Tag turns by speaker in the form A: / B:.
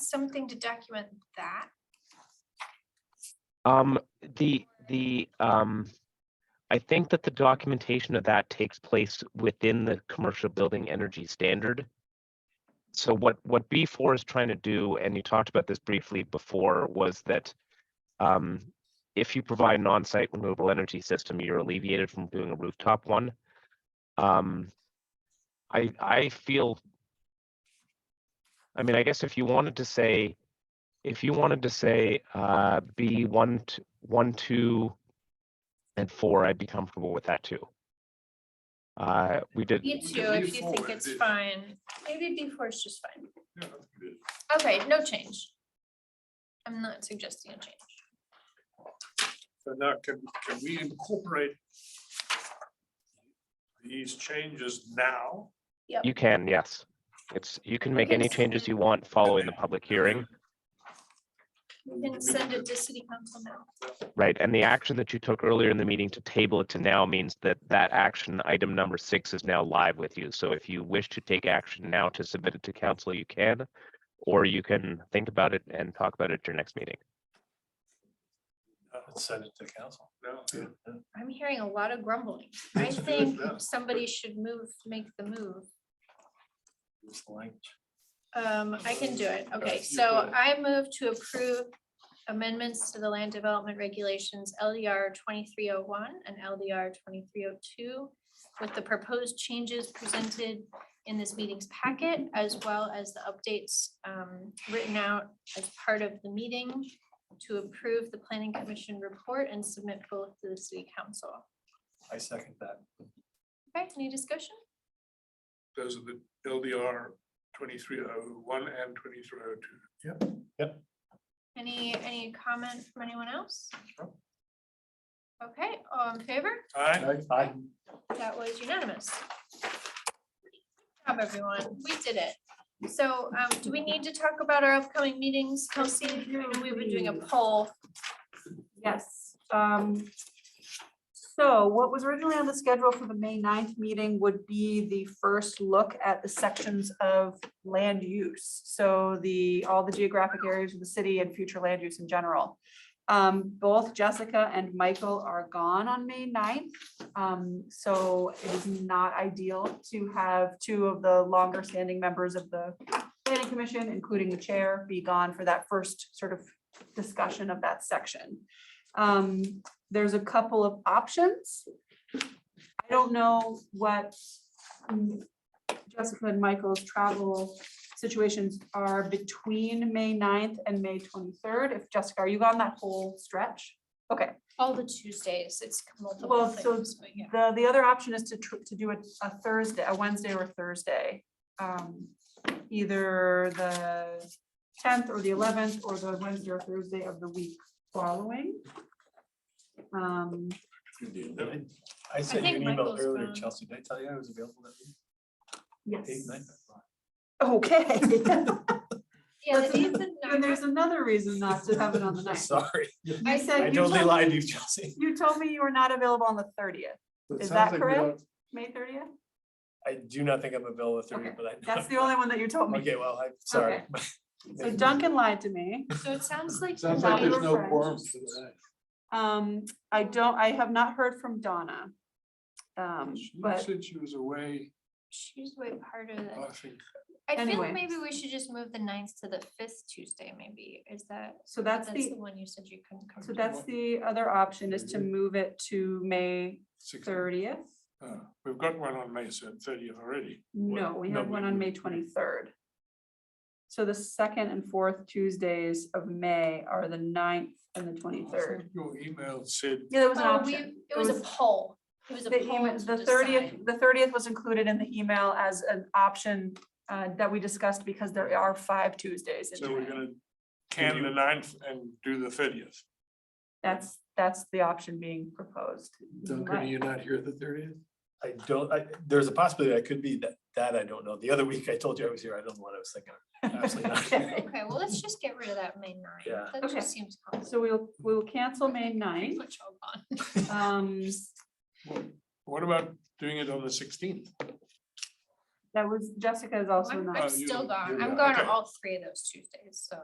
A: something to document that?
B: Um, the, the, um, I think that the documentation of that takes place within the commercial building energy standard. So what, what B four is trying to do, and you talked about this briefly before, was that um, if you provide an on-site renewable energy system, you're alleviated from doing a rooftop one. Um, I, I feel I mean, I guess if you wanted to say if you wanted to say uh, B one, t- one, two, and four, I'd be comfortable with that too. Uh, we did,
A: Me
C: can
A: too, if
C: leave
A: you
C: four
A: think
C: as
A: it's
C: is.
A: fine. Maybe B four is just fine.
C: Yeah, that's good.
A: Okay, no change. I'm not suggesting a change.
C: So now can, can we incorporate these changes now?
B: you can, yes. It's, you can make any
A: Okay.
B: changes you want following the public hearing,
A: You can send it to city council now.
B: right? And the action that you took earlier in the meeting to table it to now means that that action item number six is now live with you. So if you wish to take action now to submit it to council, you can. Or you can think about it and talk about it at your next meeting.
C: Uh, Send it to council. Yeah.
A: I'm hearing a lot of grumbling. I
C: Let's do it
A: think
C: now.
A: somebody should move, make the move. Um, I can do it. Okay,
C: you
A: so
C: go.
A: I move to approve amendments to the land development regulations LDR twenty-three oh one and LDR twenty-three oh two with the proposed changes presented in this meeting's packet, as well as the updates um, written out as part of the meeting to approve the planning commission report and submit both to the city council.
D: I second that.
A: Okay, any discussion?
C: Those are the LDR twenty-three oh one and twenty-three oh two.
A: Any, any comment from anyone else?
C: Sure.
A: Okay, all in favor?
C: Aye.
D: Aye.
A: That was unanimous. Good Job, everyone. We did it. So um, do we need to talk about our upcoming meetings, Kelsey? I know We've been doing a poll.
E: Yes, um, so what was originally on the schedule for the May 9th meeting would be the first look at the sections of land use. So the, all the geographic areas of the city and future land use in general. Um, both Jessica and Michael are gone on May 9th. Um, so it is not ideal to have two of the longer standing members of the planning commission, including the chair, be gone for that first sort of discussion of that section. Um, there's a couple of options. I don't know what mm, Jessica and Michael's travel situations are between May 9th and May twenty-third. If Jessica, are you on that whole stretch? Okay,
A: All the Tuesdays, it's multiple
E: Well, so
A: things, but yeah.
E: the, the other option is to, tr- to do it a Thursday, a Wednesday or Thursday. Um, Either the tenth or the eleventh or the Wednesday or Thursday of the week following. Um,
D: I sent you
A: think
D: an email
A: Michael's
D: earlier,
A: gone.
D: Chelsea. Did I tell you I was available that week?
E: yes.
D: Eight, nine,
E: Okay.
A: Yeah,
E: That's
A: the days
E: And
A: and
E: there's
A: nights-
E: another reason not to have it on the ninth.
D: Sorry,
E: You
D: I
E: said, you
D: totally
E: told,
D: lied to you, Chelsea.
E: you told me you were not available on the thirtieth, Is that correct? May thirtieth?
D: I do not think I'm available the
E: Okay,
D: thirtieth, but I.
E: That's the only one that you told me.
D: Okay, well, I'm sorry.
E: So Duncan lied to me.
A: So it sounds like.
C: Sounds
E: like there's
A: Donna-
E: no quorum Um, I don't, I have not heard from Donna. Um, but
C: Said she was away,
A: She's way harder than,
C: I think.
A: I feel
E: Anyway.
A: like maybe we should just move the ninth to the fifth Tuesday, maybe, is that?
E: So that's the-
A: one you said you couldn't come.
E: So
A: to.
E: that's the other option is to move it to May
C: six-
E: thirtieth.
C: uh, We've got one on May thirtieth already.
E: No, we have one on May twenty-third. So the second and fourth Tuesdays of May are the 9th and the
C: I
E: twenty-third.
C: think Your email said
E: Yeah, that was an
A: Oh, we,
E: option.
A: it was a
E: was-
A: poll. It was a
E: The
A: poll.
E: email,
A: to
E: the thirtieth,
A: decide.
E: the thirtieth was included in the email as an option uh, that we discussed because there are five Tuesdays. in
C: So we're
E: May.
C: gonna can the ninth and do the thirtieth.
E: That's, that's the option being proposed. Right.
C: not here the thirtieth?
D: I don't, I, there's a possibility I could be that, that I don't know. The other week I told you I was here. I don't know what I was thinking. Absolutely not.
E: Okay,
A: Okay, well, let's just get rid of that May
D: Yeah.
A: ninth. That
E: Okay.
A: just seems.
E: So we'll, we'll cancel May Um, 9th. Um,
C: What about doing it on the sixteenth?
E: That was, Jessica is also
A: I'm
E: not.
A: I'm
C: Oh, you-
A: still gone.
C: you're
A: I'm
C: not.
A: gone on
C: Okay.
A: all three of those Tuesdays, so.